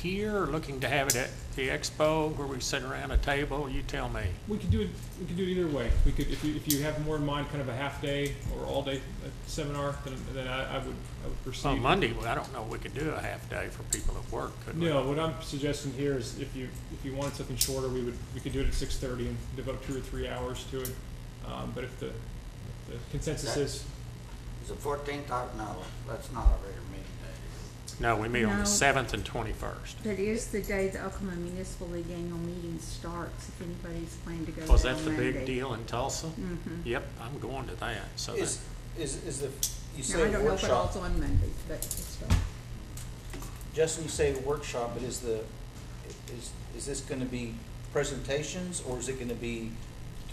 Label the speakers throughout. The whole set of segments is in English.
Speaker 1: here, or looking to have it at the expo where we sit around a table? You tell me.
Speaker 2: We could do it. We could do it either way. We could, if you, if you have more in mind, kind of a half day or all day uh, seminar, then, then I, I would, I would proceed.
Speaker 1: On Monday, well, I don't know, we could do a half day for people at work, could we?
Speaker 2: No, what I'm suggesting here is if you, if you wanted something shorter, we would, we could do it at six thirty and devote two or three hours to it. Um, but if the, if the consensus is,
Speaker 3: Is the fourteenth, no, that's not a regular meeting day.
Speaker 1: No, we meet on
Speaker 4: No.
Speaker 1: the seventh and twenty-first.
Speaker 4: That is the day the Oklahoma Municipal League annual meeting starts, if anybody's planning to go
Speaker 1: Was
Speaker 4: there
Speaker 1: Oh, that
Speaker 4: on
Speaker 1: the big
Speaker 4: Monday.
Speaker 1: deal in Tulsa?
Speaker 4: Mhm.
Speaker 1: Yep, I'm going to that, so that,
Speaker 5: Is, is, is the, you
Speaker 4: Now, I
Speaker 5: say
Speaker 4: don't know if it all's
Speaker 5: workshop,
Speaker 4: on Monday, but it's fine.
Speaker 5: Justin, you say workshop, but is the, is, is this gonna be presentations, or is it gonna be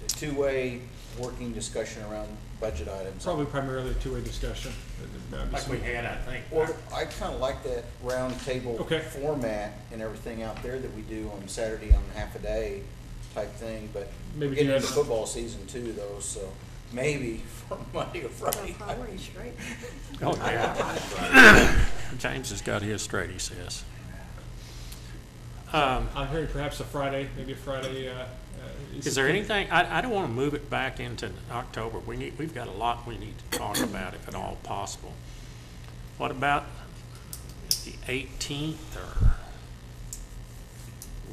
Speaker 5: a two-way working discussion around budget items?
Speaker 2: probably primarily a two-way discussion. Uh, uh,
Speaker 1: like we had, I think.
Speaker 5: Well, I kinda like that round table
Speaker 2: Okay.
Speaker 5: format and everything out there that we do on Saturday on half a day type thing, but we're
Speaker 2: Maybe do
Speaker 5: getting
Speaker 2: that-
Speaker 5: into football season too, though, so maybe for Monday or Friday.
Speaker 1: Oh, yeah. James has got his straight, he says. Um,
Speaker 2: I'm hearing Uh, perhaps a Friday, maybe a Friday, uh. uh,
Speaker 1: Is there anything, I, I don't want to move it back into October. We need, we've got a lot we need to talk about if at all possible. What about the eighteenth or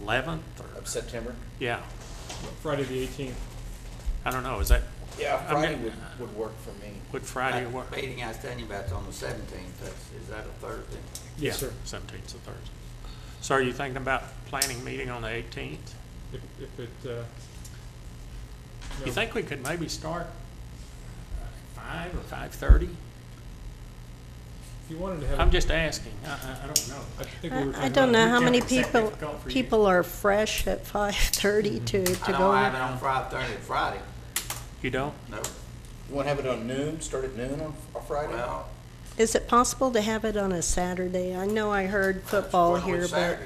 Speaker 1: eleventh or,
Speaker 5: Of September?
Speaker 1: yeah,
Speaker 2: Friday the eighteenth.
Speaker 1: I don't know, is that,
Speaker 5: Yeah,
Speaker 1: I'm
Speaker 5: Friday
Speaker 1: gonna-
Speaker 5: would, would work for me.
Speaker 1: would Friday
Speaker 5: Uh,
Speaker 3: That
Speaker 1: work?
Speaker 3: Meeting I was telling you about's on the seventeenth, that's, is that a Thursday?
Speaker 2: Yes,
Speaker 1: Yeah,
Speaker 2: sir.
Speaker 1: Seventeenth's a Thursday. So are you thinking about planning meeting on the eighteenth?
Speaker 2: If, if it, uh.
Speaker 1: You
Speaker 2: no.
Speaker 1: think we could maybe start uh, five or five-thirty?
Speaker 2: If you wanted to have.
Speaker 1: I'm
Speaker 2: it-
Speaker 1: just asking, I, I, I don't know.
Speaker 2: I think we were
Speaker 6: I I
Speaker 2: talking
Speaker 6: don't know
Speaker 2: about-
Speaker 6: how many
Speaker 1: Except it's
Speaker 6: people,
Speaker 1: difficult for you.
Speaker 6: people are fresh at 5:30 to,
Speaker 3: Mm-hmm. I
Speaker 6: to
Speaker 3: don't have it
Speaker 6: go.
Speaker 3: on Friday, Thursday, Friday,
Speaker 1: You don't?
Speaker 3: no,
Speaker 5: You want to have it on noon, start at noon on on Friday?
Speaker 3: well.
Speaker 6: Is it possible to have it on a Saturday? I know I heard football
Speaker 3: I don't know
Speaker 6: here,
Speaker 3: which
Speaker 6: but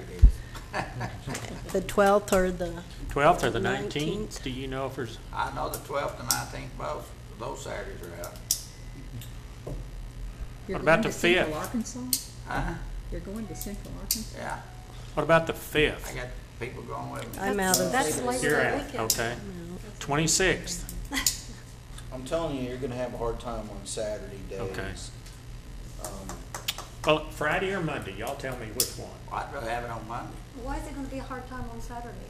Speaker 3: Saturday it is.
Speaker 6: the 12th or the,
Speaker 1: Twelfth or the
Speaker 6: 19th?
Speaker 1: nineteenth, do you know if there's,
Speaker 3: I know the twelfth and nineteenth, both, those Saturdays are out.
Speaker 4: You're
Speaker 1: What about
Speaker 4: going to
Speaker 1: the
Speaker 4: Central
Speaker 1: fifth?
Speaker 4: Arkansas?
Speaker 3: Uh-huh,
Speaker 4: You're going to Central Arkansas?
Speaker 3: yeah,
Speaker 1: what about the
Speaker 3: I
Speaker 1: fifth?
Speaker 3: got people going with me.
Speaker 6: I'm out of,
Speaker 7: That's
Speaker 1: You're
Speaker 7: Labor Day
Speaker 1: out,
Speaker 7: weekend.
Speaker 1: okay. Twenty-sixth,
Speaker 5: I'm telling you, you're gonna have a hard time on Saturday days.
Speaker 1: Okay.
Speaker 5: Um,
Speaker 1: well, Friday or Monday, y'all tell me which one.
Speaker 3: I'd rather have it on Monday.
Speaker 7: Why is it gonna be a hard time on Saturday?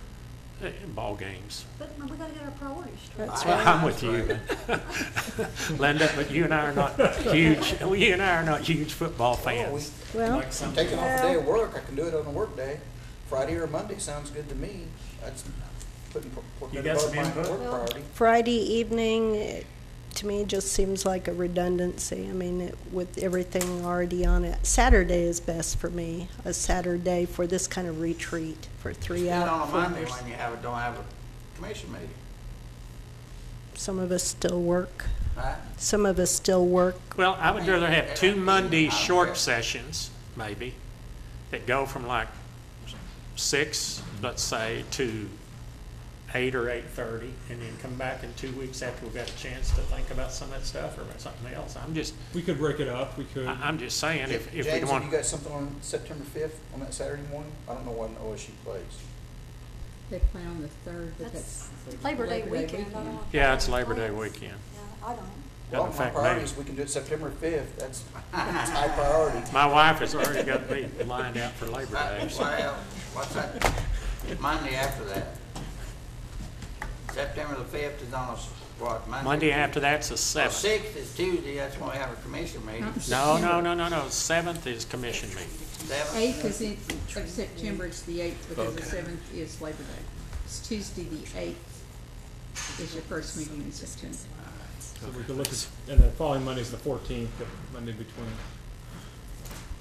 Speaker 1: Eh, Ball games.
Speaker 7: But we gotta get our priorities straight.
Speaker 6: That's
Speaker 3: I-
Speaker 6: right.
Speaker 1: I'm with you. Linda, but you and I are not huge, you and I are not huge football
Speaker 5: well, we-
Speaker 1: fans.
Speaker 6: well,
Speaker 1: Like
Speaker 5: I'm
Speaker 1: some-
Speaker 5: taking off a day
Speaker 6: Well-
Speaker 5: of work, I can do it on a work day. Friday or Monday sounds good to me. That's putting,
Speaker 1: You
Speaker 5: putting
Speaker 1: got some
Speaker 5: above my
Speaker 1: input?
Speaker 5: work priority.
Speaker 6: Friday evening, eh, to me, just seems like a redundancy. I mean, it- with everything already on it. Saturday is best for me, a Saturday for this kind of retreat for three
Speaker 3: Then on
Speaker 6: hours.
Speaker 3: a Monday when you have, a- don't have a commission meeting,
Speaker 6: Some of us still work.
Speaker 3: right?
Speaker 6: Some of us still work
Speaker 1: Well, I would rather have two Monday
Speaker 3: I'll
Speaker 1: short
Speaker 3: bet.
Speaker 1: sessions, maybe, that go from like six, let's say, to eight or eight-thirty, and then come back in two weeks after we've got a chance to think about some of that stuff or about something else. I'm just,
Speaker 2: We could break it up, we could.
Speaker 1: I, I'm just saying, if, if we
Speaker 5: James, have you
Speaker 1: want,
Speaker 5: got something on September fifth, on that Saturday morning? I don't know when OSU plays.
Speaker 4: They play on the third, but
Speaker 7: That's
Speaker 4: that's.
Speaker 7: Labor Day weekend. I don't want to-
Speaker 1: yeah, it's Labor Day weekend.
Speaker 7: Yeah, I don't.
Speaker 5: Well,
Speaker 1: Doesn't
Speaker 5: my
Speaker 1: affect me.
Speaker 5: priority is we can do it September fifth. That's, that's high priority.
Speaker 1: My wife has already got me lined out for Labor Day. so-
Speaker 3: Well, what's that, Monday after that? September the fifth is on a, s- what, Monday?
Speaker 1: Monday after that's the
Speaker 5: Oh,
Speaker 1: seventh.
Speaker 3: Sixth is Tuesday, that's when we have a commission meeting.
Speaker 1: No, no, no, no, no, seventh is commission meeting.
Speaker 3: Seventh,
Speaker 4: Eighth is in, of September, it's the eighth, because the seventh is Labor Day. It's Tuesday, the eighth is your first meeting in September.
Speaker 2: So we could look at, and the following Monday is the fourteenth, the Monday between.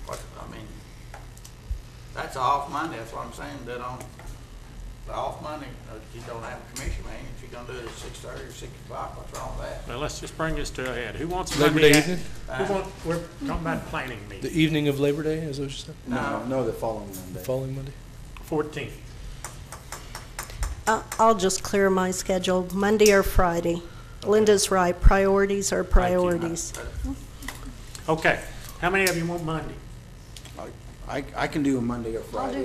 Speaker 3: what, I mean, that's off Monday, that's what I'm saying, that on, the off Monday, uh, you don't have a commission meeting, if you're gonna do it at six thirty or six o'clock, what's wrong with that?
Speaker 1: Well, let's just bring this to a head. Who wants
Speaker 8: Labor
Speaker 1: Monday?
Speaker 8: Day
Speaker 1: at-
Speaker 8: evening?
Speaker 1: Who want, we're talking about planning
Speaker 8: The
Speaker 1: meeting,
Speaker 8: evening of Labor Day, is that what you said?
Speaker 5: No, no, the following Monday.
Speaker 8: The following Monday?
Speaker 1: fourteenth.
Speaker 6: I- Uh, I'll just clear my schedule, Monday or Friday. Linda's right, priorities are priorities.
Speaker 1: Okay, how many of you want Monday?
Speaker 5: I, I- I can do a Monday or Friday.